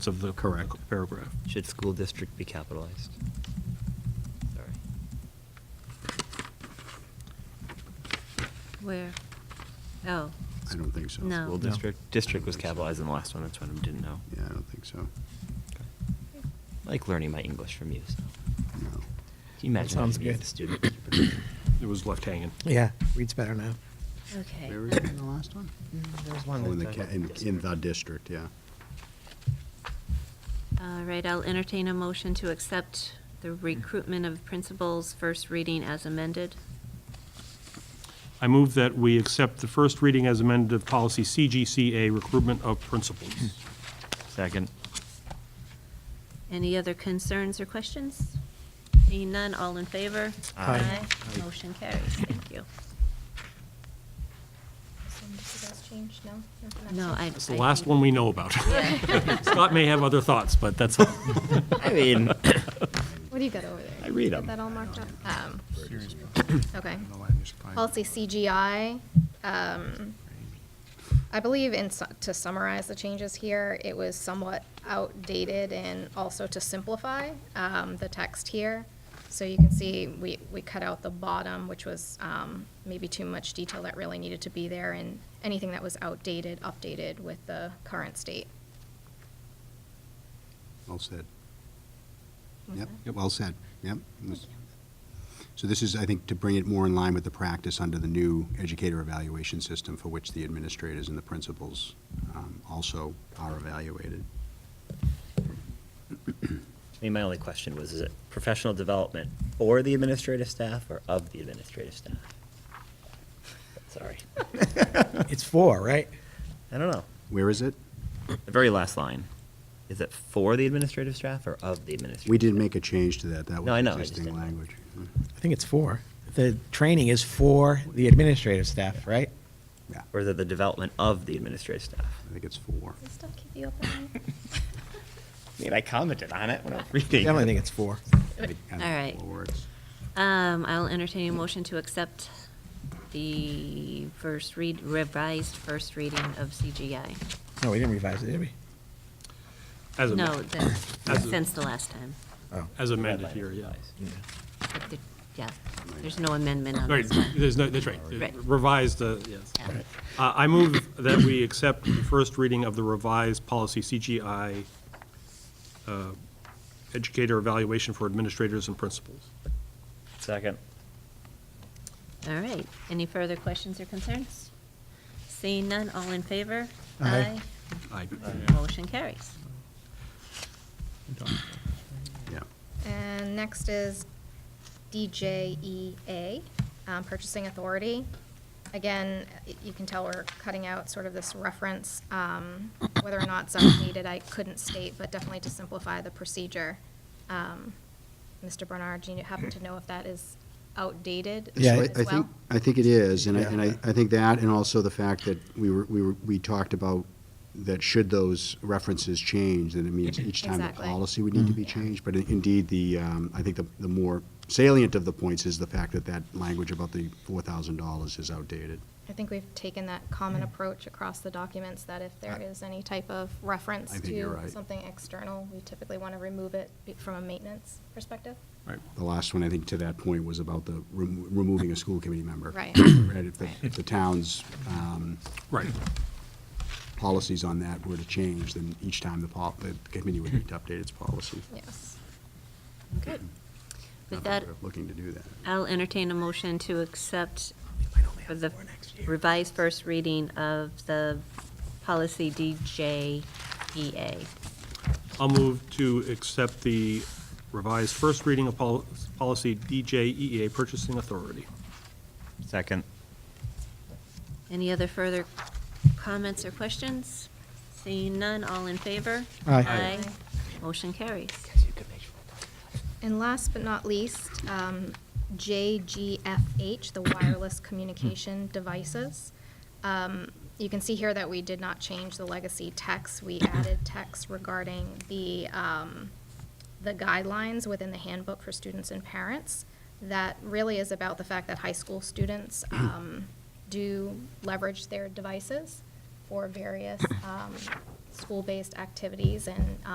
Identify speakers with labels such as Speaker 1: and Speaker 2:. Speaker 1: of the
Speaker 2: Correct.
Speaker 1: paragraph.
Speaker 3: Should school district be capitalized? Sorry.
Speaker 4: Where? Oh,
Speaker 2: I don't think so.
Speaker 4: No.
Speaker 3: School
Speaker 4: No.
Speaker 3: district, district was capitalized in the last one, that's what I didn't know.
Speaker 2: Yeah, I don't think so.
Speaker 3: I Like learning my English from you, so.
Speaker 2: No.
Speaker 3: Can you imagine
Speaker 5: sounds
Speaker 3: being
Speaker 5: good.
Speaker 3: a student?
Speaker 1: It was left hanging.
Speaker 5: Yeah, reads better now.
Speaker 4: okay.
Speaker 2: Where were you in the last one?
Speaker 5: There's
Speaker 2: Oh,
Speaker 5: one.
Speaker 2: in the, ca- in, in the district, yeah.
Speaker 4: All right, I'll entertain a motion to accept the recruitment of principals first reading as amended.
Speaker 1: I move that we accept the first reading as amended of policy CGCA, recruitment of principals.
Speaker 3: Second.
Speaker 4: Any other concerns or questions? Seeing none, all in favor?
Speaker 3: Aye.
Speaker 4: Aye. Motion carries, thank you.
Speaker 6: Assume this has changed, no? Nothing
Speaker 4: No,
Speaker 6: else?
Speaker 4: I.
Speaker 1: It's the
Speaker 4: I
Speaker 1: last
Speaker 4: think-
Speaker 1: one we know about. Scott may have other thoughts, but that's,
Speaker 3: I mean,
Speaker 6: What do you got over there?
Speaker 3: I read
Speaker 6: Got
Speaker 3: 'em.
Speaker 6: that all marked up? Um, okay. Policy CGI, um, I believe in, su- to summarize the changes here, it was somewhat outdated and also to simplify, um, the text here. So you can see, we, we cut out the bottom, which was, um, maybe too much detail that really needed to be there, and anything that was outdated, updated with the current state.
Speaker 2: Well said.
Speaker 6: Was
Speaker 2: Yep,
Speaker 6: that-
Speaker 2: well said. Yep. So this is, I think, to bring it more in line with the practice under the new educator evaluation system for which the administrators and the principals um, also are evaluated.
Speaker 3: I mean, my only question was, is it professional development for the administrative staff or of the administrative staff? Sorry.
Speaker 5: It's four, right?
Speaker 3: I don't know.
Speaker 2: Where is it?
Speaker 3: The very last line. Is it for the administrative staff or of the administrative?
Speaker 2: We did
Speaker 3: staff?
Speaker 2: make a change to that. That
Speaker 3: No, I know,
Speaker 2: was
Speaker 3: I just
Speaker 2: existing
Speaker 3: didn't know.
Speaker 2: language.
Speaker 5: I think it's four. The training is for the administrative staff, right?
Speaker 2: Yeah,
Speaker 3: Or is it the development of the administrative staff?
Speaker 2: I think it's four.
Speaker 6: Does it still keep you up at night?
Speaker 3: I mean, I commented on it when I was reading.
Speaker 5: Definitely think it's four.
Speaker 2: All
Speaker 4: right. Um, I'll entertain a motion to accept the first read, revised first reading of CGI.
Speaker 5: No, we didn't revise it, did we?
Speaker 1: as
Speaker 4: No,
Speaker 1: amended,
Speaker 4: that's
Speaker 1: As a-
Speaker 4: since the last time.
Speaker 5: Oh.
Speaker 1: as amended here, yeah.
Speaker 4: But the- Yeah, there's no amendment on
Speaker 1: Right,
Speaker 4: this one.
Speaker 1: there's no, that's right.
Speaker 4: Right.
Speaker 1: Revised, uh, yes.
Speaker 4: Yeah.
Speaker 1: Uh, I move that we accept the first reading of the revised policy CGI, uh, educator evaluation for administrators and principals.
Speaker 3: Second.
Speaker 4: All right, any further questions or concerns? Seeing none, all in favor?
Speaker 5: Aye.
Speaker 1: Aye.
Speaker 4: Motion carries.
Speaker 2: Yeah.
Speaker 6: And next is DJEA, um, Purchasing Authority. Again, y- you can tell we're cutting out sort of this reference, um, whether or not it's updated, I couldn't state, but definitely to simplify the procedure. Um, Mr. Bernard, do you happen to know if that is outdated
Speaker 5: Yeah,
Speaker 2: So I-
Speaker 6: as
Speaker 2: I
Speaker 6: well?
Speaker 2: think, I think it is, and I, and I,
Speaker 5: Yeah.
Speaker 2: I think that, and also the fact that we were, we were, we talked about that should those references change, then it means each time the
Speaker 6: Exactly.
Speaker 2: policy would need to be changed, but in- indeed, the, um, I think the, the more salient of the points is the fact that that language about the four thousand dollars is outdated.
Speaker 6: I think we've taken that common approach across the documents, that if there is any type of reference
Speaker 2: I think you're
Speaker 6: to
Speaker 2: right.
Speaker 6: something external, we typically want to remove it be- from a maintenance perspective.
Speaker 1: Right.
Speaker 2: The last one, I think, to that point was about the remo- removing a school committee member.
Speaker 6: Right.
Speaker 2: Right, if the,
Speaker 6: Right.
Speaker 2: if the town's, um,
Speaker 1: Right.
Speaker 2: policies on that were to change, then each time the pol, the committee would need to update its policy.
Speaker 6: Yes.
Speaker 4: Good. With
Speaker 2: Not that
Speaker 4: that,
Speaker 2: we're Looking to do that.
Speaker 4: I'll entertain a motion to accept for the revised first reading of the policy E DJEA.
Speaker 1: I'll move to accept the revised first reading of pol- policy DJEA, purchasing authority.
Speaker 3: Second.
Speaker 4: Any other further comments or questions? Seeing none, all in favor?
Speaker 5: Aye.
Speaker 4: Aye.
Speaker 6: Aye.
Speaker 4: Motion carries.
Speaker 6: And last but not least, um, JGFH, the wireless communication devices. Um, You can see here that we did not change the legacy text. We added text regarding the, um, the guidelines within the handbook for students and parents. That really is about the fact that high school students um, do leverage their devices for various um, school-based activities and